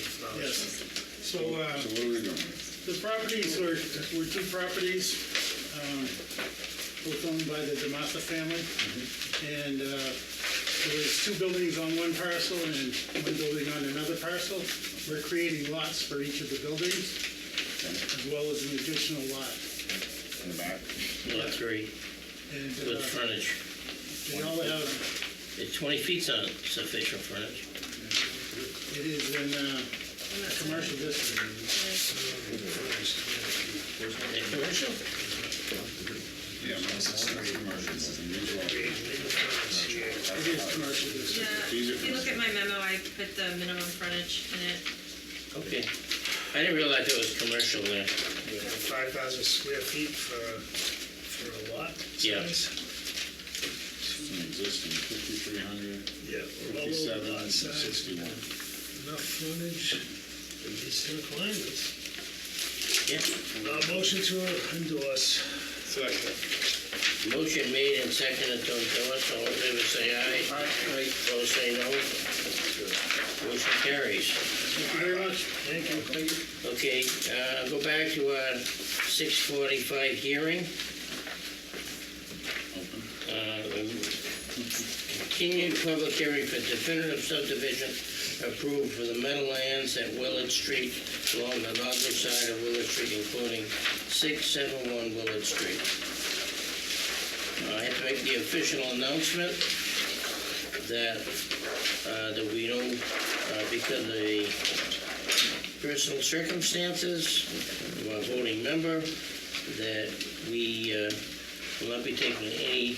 Yes. So uh, So where are we going? the properties are, were two properties, um, both owned by the DeMatha family. And uh, there was two buildings on one parcel and one building on another parcel. We're creating lots for each of the buildings, as well as an additional lot. In the back? Lot three, And uh, with frontage. they all have, It's 20 feet's on sufficient frontage. it is in uh, a commercial district. They commercial? Yeah, no, it's not commercial, it's individual. It is commercial district. Yeah, These are if you look at my memo, I put the minimum frontage in it. Okay. I didn't realize it was commercial there. Five thousand square feet for, for a lot? Yeah. size? It's an existing, 5,300, Yeah. well over 57, lot size, 61. Enough frontage, and decent requirements. Yeah. Uh, motion to endorse. Motion made and seconded to endorse. All in favor, say aye. Aye. Opposed, say no. Motion carries. Thank you very much. Thank you. Okay, uh, go back to our 6:45 hearing. Open. Uh, Continued public hearing for definitive subdivision approved for the Meadowlands at Willard Street along the northern side of Willard Street, including 671 Willard Street. Uh, I have to make the official announcement that, uh, that we don't, uh, because of the personal circumstances of our voting member, that we uh, will not be taking any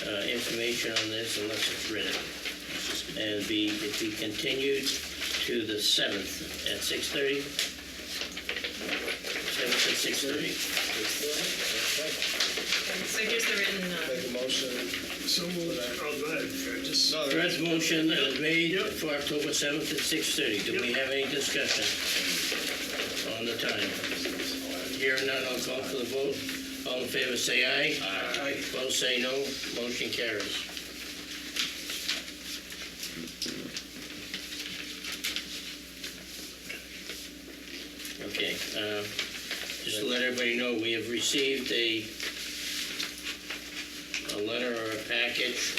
uh, information on this unless it's written. And be, it be continued to the 7th at 6:30? 7th at 6:30. So here's the written, uh, So moved. Oh, go ahead, Fred, just. uh, Fred's motion is made Yep. for October 7th at 6:30. Do we Yep. have any discussion on the time? Hearing none, I'll call for the vote. All in favor, say aye. Aye. Opposed, say no. Motion carries. Okay, uh, just to let everybody know, we have received a, a letter or a package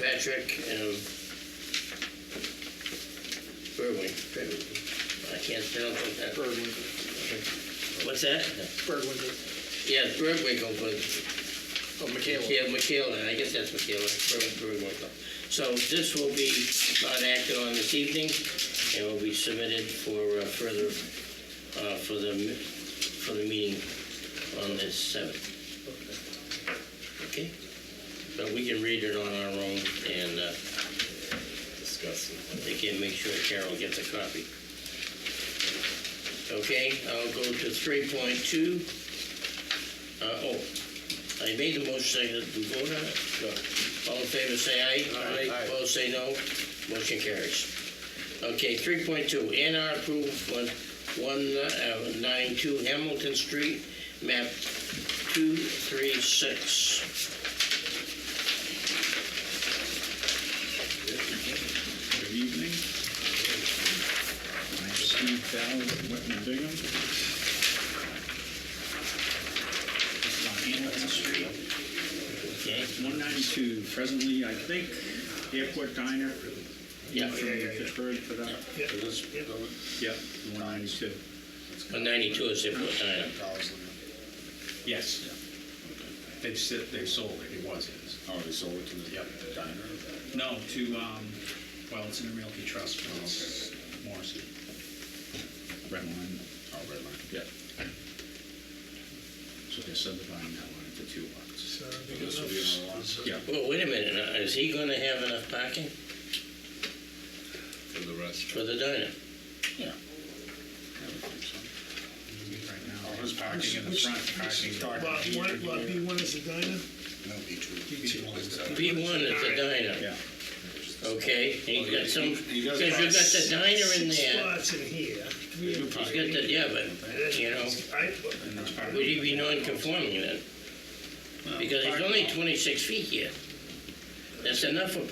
Patrick and Berwin. I can't pronounce what that. Berwin. What's that? Berwin. Yeah, Berwin, but Oh, Michaela. yeah, Michaela, I guess that's Michaela, Berwinkle. So this will be not acted on this evening and will be submitted for uh, further, uh, for the, mi- for the meeting on the 7th. Okay? But we can read it on our own and uh, Discuss it. they can make sure Carol gets a copy. Okay, I'll go to 3.2. Uh, Oh, I made the motion, second, did we vote on it? No. All in favor, say aye. Aye. Aye. Opposed, say no. Motion carries. Okay, three point two, A and R approved for one uh, nine two Hamilton Street, map two three six. Good evening. I'm Steve Fallon, Whitman Bingham. This is on Hamilton Street. Okay, 192 presently, I think, Airport Diner. Yeah. From Pittsburgh for that. Yeah. Yep, 192. one ninety-two is it, what time? Yes. They've said, they sold it, it was his. Oh, they sold it to the the diner? No, to, um, well, it's in a realty trust, but it's Morrissey. Red line? Oh, red line. Yep. So they're subdividing that one into two lots. So, This will be another lot. Yeah. Well, wait a minute, now, is he gonna have enough parking For the rest. for the diner? Yeah. I would think so. Right All now, his parking in the Which- front, parking. uh, Lot one, lot B one is the diner? B one is the diner, Yeah. okay, and he's got some, He does because you've got the diner in Six there. lots in here. Two He's parking. got the, yeah, but, you know, I, And there's parking. would he be non-conforming then? Because he's only twenty-six feet here. That's enough for